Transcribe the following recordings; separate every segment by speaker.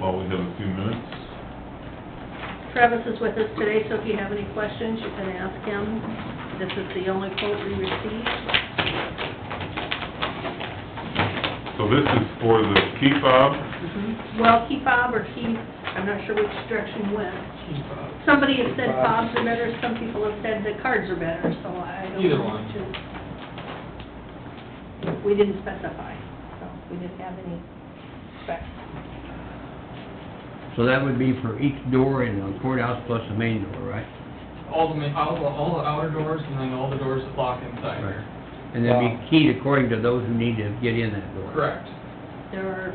Speaker 1: Well, we have a few minutes.
Speaker 2: Travis is with us today, so if you have any questions, you can ask him. This is the only quote we received.
Speaker 1: So this is for the key fob.
Speaker 3: Mm-hmm.
Speaker 2: Well, key fob or key, I'm not sure which direction went.
Speaker 3: uh,
Speaker 2: Somebody has said fobs are better, some people have said the cards are better, so I don't
Speaker 3: Either
Speaker 2: know.
Speaker 3: one.
Speaker 2: which is- We didn't specify, so we didn't have any specs.
Speaker 4: So that would be for each door in the courthouse plus the main door, right?
Speaker 3: All the, ma- all the, all the outer doors and then all the doors that lock inside here.
Speaker 4: And that'd be keyed according to those who need to get in that door.
Speaker 3: Correct.
Speaker 2: There are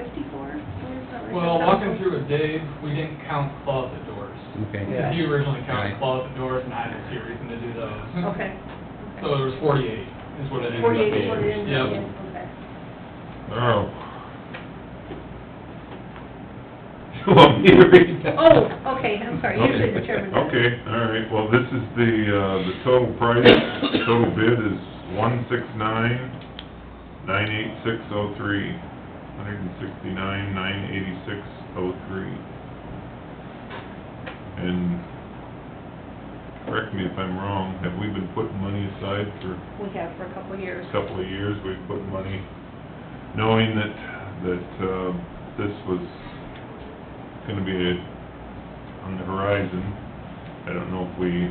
Speaker 2: fifty-four doors that were-
Speaker 3: Well, walking through with Dave, we didn't count closet doors.
Speaker 4: Okay.
Speaker 5: Yeah.
Speaker 3: You originally counted
Speaker 4: Right.
Speaker 3: closet doors and I didn't see a reason to do those.
Speaker 2: Okay.
Speaker 3: So there was forty-eight is what it ended up being.
Speaker 2: Forty-eight is what it ended up
Speaker 3: Yep.
Speaker 2: being, okay.
Speaker 1: Oh. You want me to read that?
Speaker 2: Oh, okay, I'm sorry, usually the chairman does.
Speaker 1: Okay, all right, well, this is the, uh, the total price, total bid is one six nine, nine eight six oh three, hundred and sixty-nine, nine eighty-six oh three. And, correct me if I'm wrong, have we been putting money aside for
Speaker 2: We have for a couple of years.
Speaker 1: a couple of years, we've put money, knowing that, that, um, this was gonna be on the horizon. I don't know if we,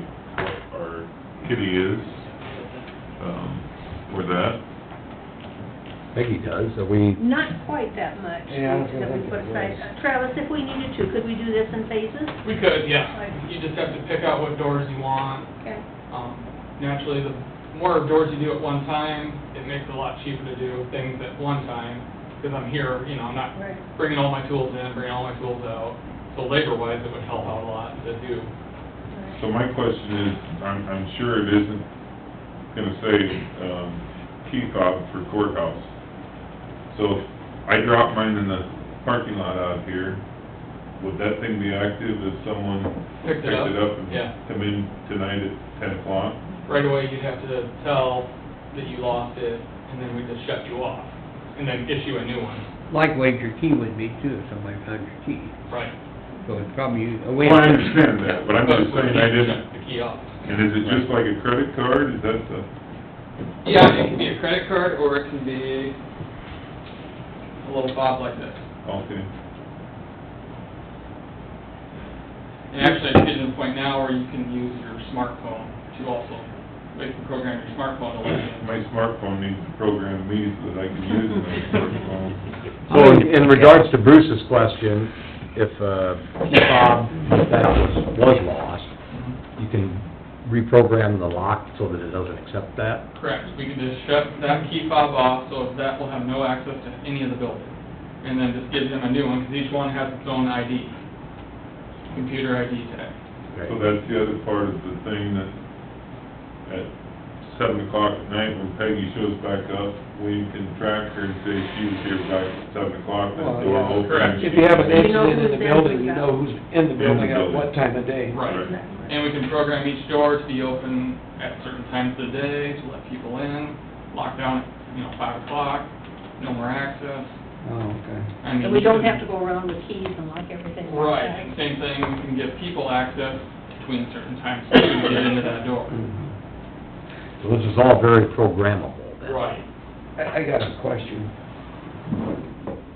Speaker 1: what our kitty is, um, for that.
Speaker 6: Peggy does, are we,
Speaker 2: Not quite that much
Speaker 5: Yeah, I was
Speaker 2: that
Speaker 5: gonna
Speaker 2: we
Speaker 5: think
Speaker 2: put
Speaker 5: it
Speaker 2: aside.
Speaker 5: was.
Speaker 2: Uh, Travis, if we needed to, could we do this in phases?
Speaker 3: We could, yeah. You just have to pick out what doors you want.
Speaker 2: Okay.
Speaker 3: Um, naturally, the more doors you do at one time, it makes it a lot cheaper to do things at one time, because I'm here, you know, I'm not
Speaker 2: Right.
Speaker 3: bringing all my tools in, bringing all my tools out. So labor-wise, it would help out a lot to do.
Speaker 1: So my question is, I'm, I'm sure it isn't gonna say, um, key fob for courthouse. So if I drop mine in the parking lot out here, would that thing be active if someone
Speaker 3: Picked it up?
Speaker 1: picked it up and
Speaker 3: Yeah.
Speaker 1: come in tonight at ten o'clock?
Speaker 3: Right away, you'd have to tell that you lost it, and then we just shut you off, and then issue a new one.
Speaker 4: Likewise, your key would be too, if somebody found your key.
Speaker 3: Right.
Speaker 4: So it's probably a way.
Speaker 1: Well, I understand that, but I'm just
Speaker 3: But
Speaker 1: saying
Speaker 3: we
Speaker 1: I
Speaker 3: can't
Speaker 1: didn't,
Speaker 3: shut The key off.
Speaker 1: and is it just like a credit card, is that the,
Speaker 3: Yeah, it can be a credit card, or it can be a little fob like this.
Speaker 1: okay,
Speaker 3: And actually, it's getting to the point now where you can use your smartphone to also, you can program your smartphone to let you in.
Speaker 1: my smartphone needs to program me so that I can use my smartphone.
Speaker 6: so in in regards to Bruce's question, if, uh, Bob, if that was, was lost, you can reprogram the lock so that it doesn't accept that?
Speaker 3: Correct, we can just shut that key fob off, so that will have no access to any of the building. And then just give them a new one, because each one has its own ID, computer ID tag.
Speaker 1: So
Speaker 6: Okay.
Speaker 1: that's the other part of the thing that, at seven o'clock at night, when Peggy shows back up, we can track her and say she was here back at seven o'clock, that
Speaker 5: Well,
Speaker 1: door
Speaker 5: yeah.
Speaker 1: opened.
Speaker 3: Correct.
Speaker 5: If you have an
Speaker 2: You know
Speaker 5: incident in
Speaker 2: who's
Speaker 5: the
Speaker 2: in,
Speaker 5: building,
Speaker 2: who's
Speaker 5: you
Speaker 2: out.
Speaker 5: know who's in the
Speaker 1: In the
Speaker 5: building at
Speaker 1: building.
Speaker 5: what time of day.
Speaker 3: Right, and we can program each door to be open at certain times of the day, to let people in, lock down, at you know, five o'clock, no more access.
Speaker 5: Oh, okay.
Speaker 3: I mean,
Speaker 2: And we don't
Speaker 3: you
Speaker 2: have to go around with keys and lock everything like that.
Speaker 3: Right, and same thing, we can give people access between certain times to get into that door.
Speaker 6: So this is all very programmable then?
Speaker 3: Right.
Speaker 5: I, I got a question.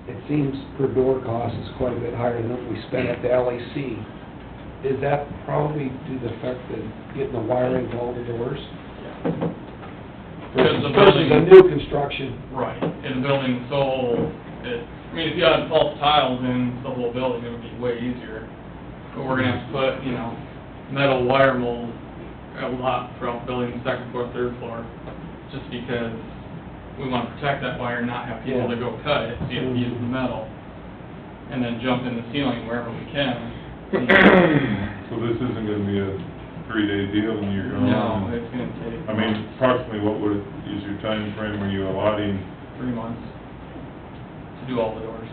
Speaker 5: It seems per door cost is quite a bit higher than what we spent at the LEC. Is that probably due to the fact that getting the wiring to all the doors?
Speaker 3: Because the
Speaker 5: Versus a
Speaker 3: building-
Speaker 5: new construction,
Speaker 3: Right, and the building's so, old, it, I mean, if you had false tiles in the whole building, it would be way easier. But we're gonna have to put, you know, metal wire mold a lot throughout the building, second floor, third floor, just because we wanna protect that wire, and not have people
Speaker 5: Yeah.
Speaker 3: to go cut it, so you have to use the metal. And then jump in the ceiling wherever we can.
Speaker 1: So this isn't gonna be a three-day deal when you're gone?
Speaker 3: No, it's gonna take.
Speaker 1: I mean, approximately what would, is your time frame? were you allotting?
Speaker 3: Three months to do all the doors.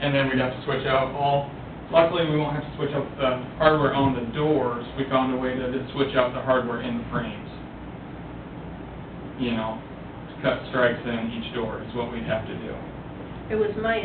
Speaker 3: And then we'd have to switch out all, luckily, we won't have to switch out the hardware on the doors. We found a way to just switch out the hardware in the frames. You know, to cut strikes in each door is what we'd have to do.
Speaker 2: It was my